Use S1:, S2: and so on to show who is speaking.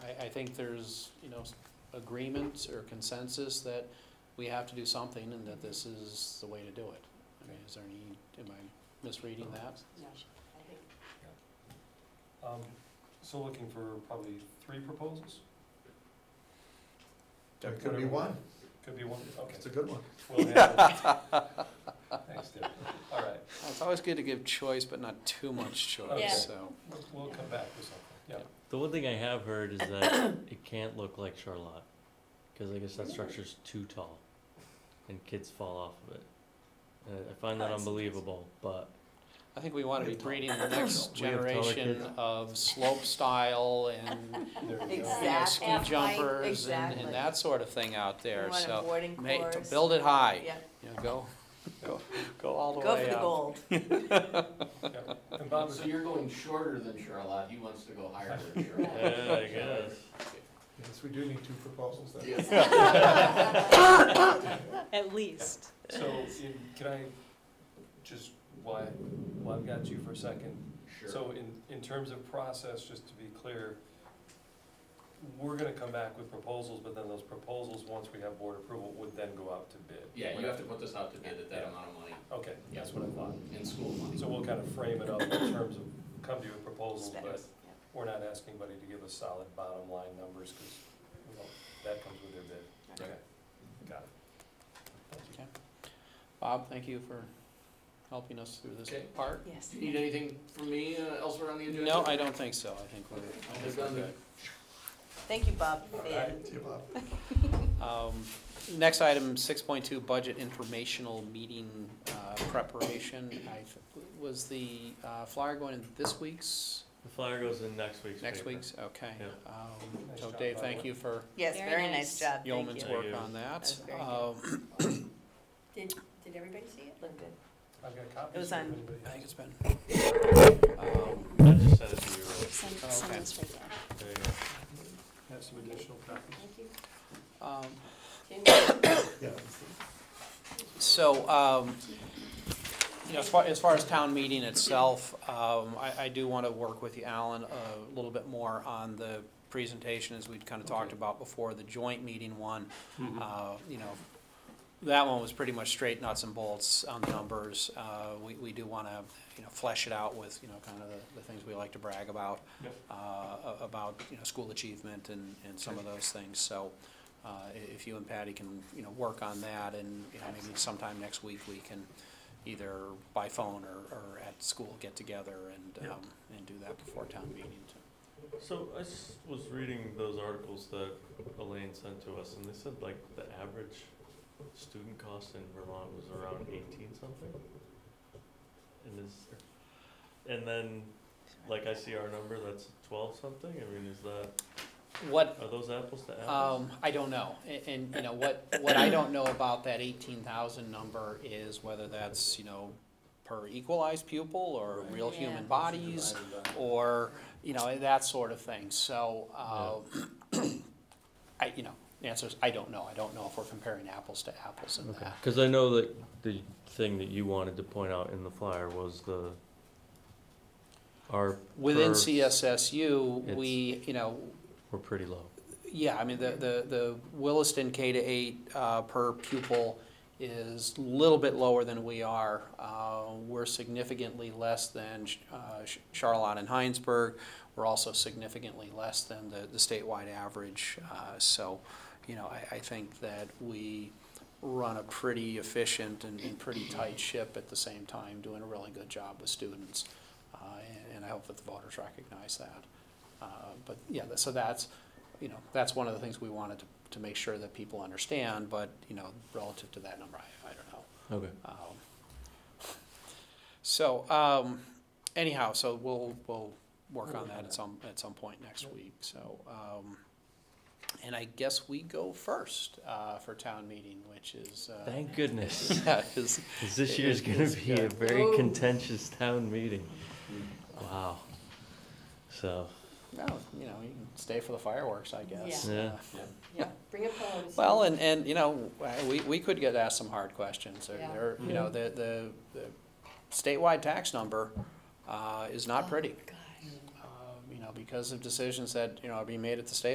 S1: think there's, you know, s- agreement or consensus that we have to do something and that this is the way to do it. I mean, is there any, am I misreading that?
S2: I think
S3: Um, So looking for probably three proposals?
S4: That could be one.
S3: Could be one, okay.
S4: It's a good one.
S3: We'll handle it. Thanks, Deb. All right,
S1: It's always good to give choice, but not too much
S3: Okay.
S1: choice, so.
S3: we'll- we'll come back with something, yeah.
S5: The one thing I have heard is that it can't look like Charlotte, because I guess that structure's too tall, and kids fall off of it. And I find that
S2: Oh, I see.
S5: unbelievable, but
S1: I think we want to be breeding the next
S5: We have taller
S1: generation
S5: kids.
S1: of slope style and,
S3: There we go.
S1: you know, ski
S2: Exactly.
S1: jumpers and,
S2: Exactly.
S1: and that sort of thing out
S2: We
S1: there,
S2: want a
S1: so.
S2: boarding
S1: ma- to
S2: course.
S1: Build it high,
S2: Yeah,
S1: you know, go, go, go all the way
S2: go
S1: up.
S2: for the gold.
S3: Yeah. And Bob,
S6: So you're going shorter than Charlotte, he wants to go higher than Charlotte.
S5: yeah, I guess.
S4: Yes, we do need two proposals then.
S6: Yes.
S7: At least.
S3: so in- can I just, why, while I've got you for a second?
S6: Sure.
S3: So in, in terms of process, just to be clear, we're gonna come back with proposals, but then those proposals, once we have board approval, would then go out to bid.
S6: Yeah, you have to put this out to bid at that
S3: Yeah.
S6: amount of money,
S3: Okay, that's what I thought.
S6: in school money.
S3: So we'll kind of frame it up in terms of, come to you with proposals,
S2: Specs,
S3: but
S2: yeah.
S3: we're not asking anybody to give us solid bottom line numbers, because, you know, that comes with their bid.
S6: Okay.
S3: Got it. Thank you.
S1: Bob, thank you for helping us through this
S6: Okay.
S1: part.
S2: Yes.
S6: Do you need anything from me uh, elsewhere on the agenda?
S1: No, I don't think so. I think we're, I
S6: We've
S1: think
S6: done
S1: we're
S6: the-
S1: good.
S2: Thank you, Bob. for the-
S3: right.
S4: See you, Bob.
S1: Um, Next item, six point two, budget informational meeting uh, preparation. I, th- was the uh, flyer going in this week's,
S5: The flyer goes in next week's
S1: next
S5: paper.
S1: week's? Okay.
S5: Yeah.
S1: Um,
S3: Nice
S1: So
S3: job,
S1: Dave,
S3: by the
S1: thank
S3: way.
S1: you for
S2: Yes,
S7: Very
S2: very
S7: nice.
S2: nice job, thank
S1: yeoman's
S2: you.
S5: work.
S1: work on
S2: That's
S1: that.
S2: very good.
S1: Um,
S2: Did, did everybody see it? Looked good.
S3: I've got copies.
S2: It was
S3: if
S2: on-
S3: anybody
S1: I think
S3: has.
S1: it's been. um,
S5: I just sent it to you. right?
S7: Send,
S1: Oh,
S7: send
S1: okay.
S7: this right there.
S5: There you go.
S3: Have some additional copies.
S2: Thank you.
S1: um,
S2: Jim?
S4: Yeah.
S1: So, um, you know, as far, as far as town meeting itself, um, I, I do want to work with you, Alan, a little bit more on the presentation, as we'd kind of talked
S3: Okay.
S1: about before, the joint meeting one. Uh, You know, that one was pretty much straight nuts and bolts on the numbers. Uh, We, we do want to, you know, flesh it out with, you know, kind of the, the things we like to brag about,
S3: Yep.
S1: uh, a- about, you know, school achievement and, and some of those things. So uh, i- if you and Patty can, you know, work on that and, you know, maybe sometime next week, we can either by phone or, or at school get together and,
S3: Yep.
S1: um, and do that before town meeting.
S5: So I s- was reading those articles that Elaine sent to us, and they said like the average student cost in Vermont was around eighteen something. And is, and then, like I see our number, that's twelve something, I mean, is that,
S1: What,
S5: are those apples to apples?
S1: Um, I don't know, and, and, you know, what, what I don't know about that eighteen thousand number is whether that's, you know, per equalized pupil or real
S2: Yeah.
S1: human bodies, or, you know, that sort of thing, so, uh, I, you know, the answer is, I don't know, I don't know if we're comparing apples to apples in that.
S5: Uh, Cause I know that the thing that you wanted to point out in the flyer was the, our,
S1: Within
S5: Per-
S1: CSSU,
S5: It's-
S1: we, you know,
S5: we're pretty low.
S1: Yeah, I mean, the, the, the Williston K to eight, uh, per pupil is a little bit lower than we are. Uh, we're significantly less than, uh, Sh- Charlotte and Heinsberg. We're also significantly less than the, the statewide average. Uh, so, you know, I, I think that we run a pretty efficient and, and pretty tight ship at the same time, doing a really good job with students. Uh, and, and I hope that the voters recognize that. Uh, But, yeah, tha- so that's, you know, that's one of the things we wanted to, to make sure that people understand, but, you know, relative to that number, I, I don't know.
S5: Okay.
S1: Um, So, um, anyhow, so we'll, we'll work on that at some, at some point next week, so. um, And I guess we go first uh, for town meeting, which is. uh,
S5: Thank goodness.
S1: Yeah, is,
S5: Because this
S1: It
S5: year's
S1: is-
S5: going
S1: it's
S5: to be a Mm.
S1: good.
S5: very
S2: Ooh.
S5: contentious town meeting. Wow. So,
S1: well, you know, you can stay for the fireworks, I guess.
S5: Yeah. Yeah.
S1: Uh,
S2: Yeah, bring your phones.
S1: Well, and, and, you know, we, we could get asked some hard questions, or,
S2: Yeah.
S1: or, you know, the, the, the statewide tax number, uh, is not pretty.
S2: Oh, Gosh.
S1: Um, You know, because of decisions that, you know, are being made at the state